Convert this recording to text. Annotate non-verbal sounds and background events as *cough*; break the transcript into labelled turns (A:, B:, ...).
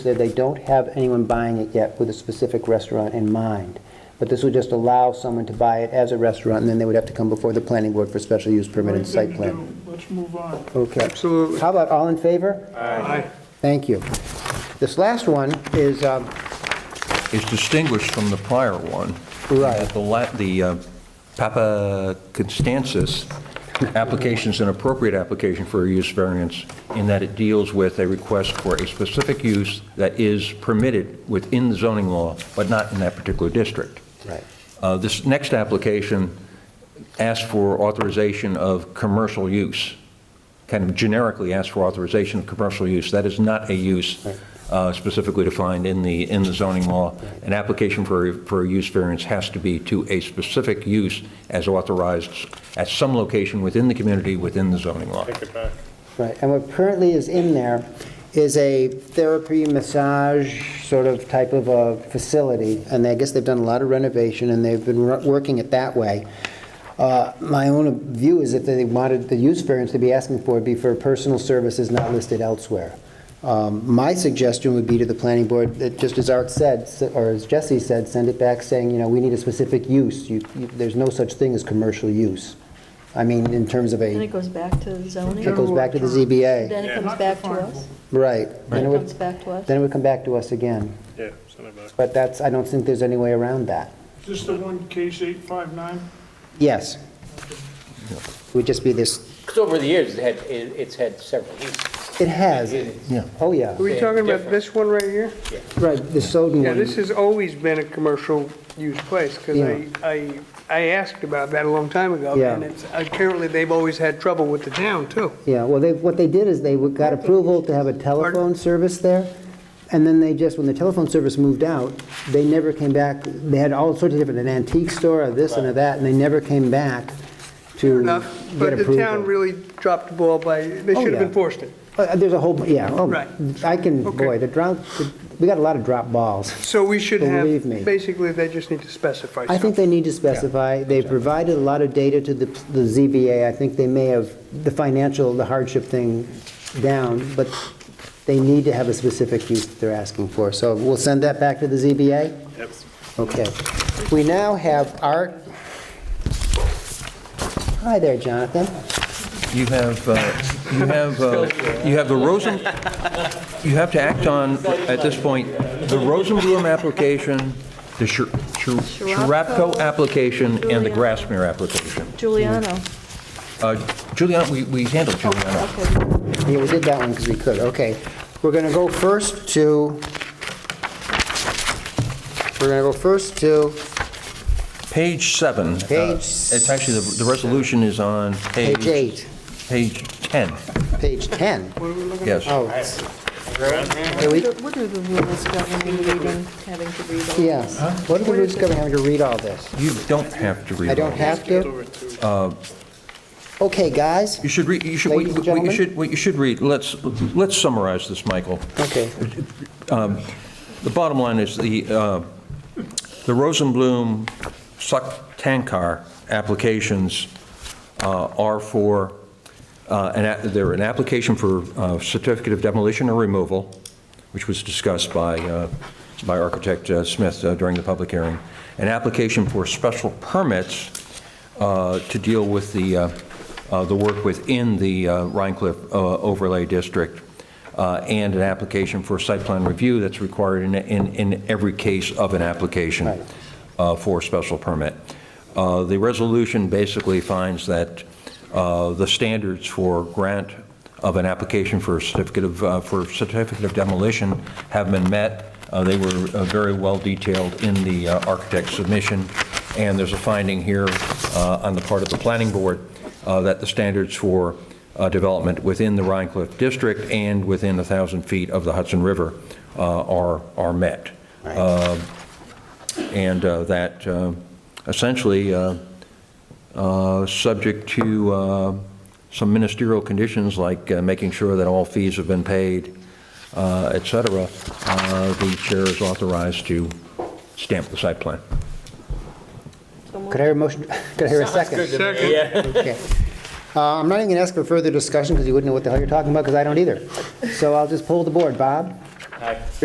A: said they don't have anyone buying it yet with a specific restaurant in mind, but this would just allow someone to buy it as a restaurant, and then they would have to come before the planning board for special use permit and site plan.
B: Let's move on.
A: Okay.
C: Absolutely.
A: How about all in favor?
B: Aye.
A: Thank you. This last one is, um,
D: is distinguished from the prior one.
A: Right.
D: The la- The uh, Papa Constantis application is an appropriate application for a use variance in that it deals with a request for a specific use that is permitted within the zoning law, but not in that particular district.
A: Right.
D: Uh, This next application asks for authorization of commercial use, kind of generically asks for authorization of commercial use. That is not a use uh, specifically defined in the, in the zoning law. An application for, for a use variance has to be to a specific use as authorized at some location within the community, within the zoning law.
B: Take it back.
A: right, and what currently is in there is a therapy massage sort of type of a facility, and I guess they've done a lot of renovation, and they've been wor- working it that way. Uh, My own view is that they wanted the use variance to be asking for would be for personal services not listed elsewhere. Um, My suggestion would be to the planning board, that just as Art said, s- or as Jesse said, send it back saying, you know, we need a specific use. You- you- There's no such thing as commercial use. I mean, in terms of
E: Then
A: a,
E: it goes back to zoning.
A: it goes back to the ZBA,
E: Then
B: Yeah.
E: it comes
B: Not
E: back to
B: definable.
E: us.
A: right. Then
E: Then
A: it
E: it
A: would-
E: comes back to us.
A: Then it would come back to us again.
B: Yeah, send it back.
A: But that's, I don't think there's any way around that.
B: Is this the one, case 859?
A: Yes. It Would just be this,
F: Because over the years, it had, it- it's had several uses.
A: it has,
F: It-
D: Yeah.
A: oh, yeah,
C: Are we talking about this one right here?
A: right, the Soden
C: Yeah, this
A: one.
C: has always been a commercial use place, because I, I, I asked about that a long time ago.
A: Yeah.
C: And it's, apparently, they've always had trouble with the town, too.
A: Yeah, well, they, what they did is they got approval to have a telephone service there, and then they just, when the telephone service moved out, they never came back, they had all sorts of different, an antique store, or this and a that, and they never came back to
C: Enough,
A: get
C: But the town
A: approval.
C: really dropped the ball by, they
A: Oh,
C: should have
A: yeah.
C: enforced it.
A: Uh, There's a whole, yeah,
C: Right.
A: oh, I can,
C: Okay.
A: boy, the drop, we got a lot of drop balls.
C: So we should
A: Believe me.
C: have, basically, they just need to specify
A: I think
C: something.
A: they need to specify, they've provided a lot of data to the the ZBA, I think they may have the financial, the hardship thing down, but they need to have a specific use that they're asking for, so we'll send that back to the ZBA?
B: Yep.
A: Okay. We now have Art. Hi there, Jonathan.
D: You have, uh, you have, uh, you have the Rosen, you have to act on, at this point, the Rosenblum application, the Shir- Shir- Sharapko application, and the Grassmere application.
E: Giuliano.
D: Uh, Juliana, we we handled Juliana.
E: Okay.
A: Yeah, we did that one because we could, okay. We're going to go first to, we're going to go first to
D: Page seven. uh,
A: Page
D: It's actually, the the resolution is on page...
A: page eight,
D: Page 10,
A: page 10.
D: yes.
A: Oh,
E: What
A: Yeah, we-
E: are the- What are the rules governing reading, having to read all
A: Yeah,
E: this?
A: what do we risk of having to read all this?
D: You don't have to read
A: I don't
D: all.
A: have to? Okay, guys,
D: You should read, you should, what
A: Ladies
D: you
A: and
D: what
A: gentlemen?
D: you should, what you should read, let's, let's summarize this, Michael.
A: okay,
D: The bottom line is the, uh, the Rosenblum Suktankar applications uh, are for, uh, an a- they're an application for uh, certificate of demolition or removal, which was discussed by, uh, by architect uh, Smith uh, during the public hearing, an application for special permits uh, to deal with the, uh, uh, the work within the uh, Rhine Cliff uh, overlay district, uh, and an application for site plan review that's required in, in, in every case of an application uh, for special permit. Uh, The resolution basically finds that uh, the standards for grant of an application for a certificate of, uh, for certificate of demolition have been met. Uh, They were uh, very well detailed in the uh, architect's submission, and there's a finding here uh, on the part of the planning board uh, that the standards for uh, development within the Rhine Cliff District and within 1,000 feet of the Hudson River uh, are, are met. Uh, And uh, that uh, essentially, uh, uh, subject to uh, some ministerial conditions, like uh, making sure that all fees have been paid, uh, et cetera, uh, the chair is authorized to stamp the site plan.
A: could I hear a motion, *laughs* could I hear a second? Okay. Uh, I'm not even going to ask for further discussion because you wouldn't know what the hell you're talking about because I don't either. So I'll just pull the board, Bob?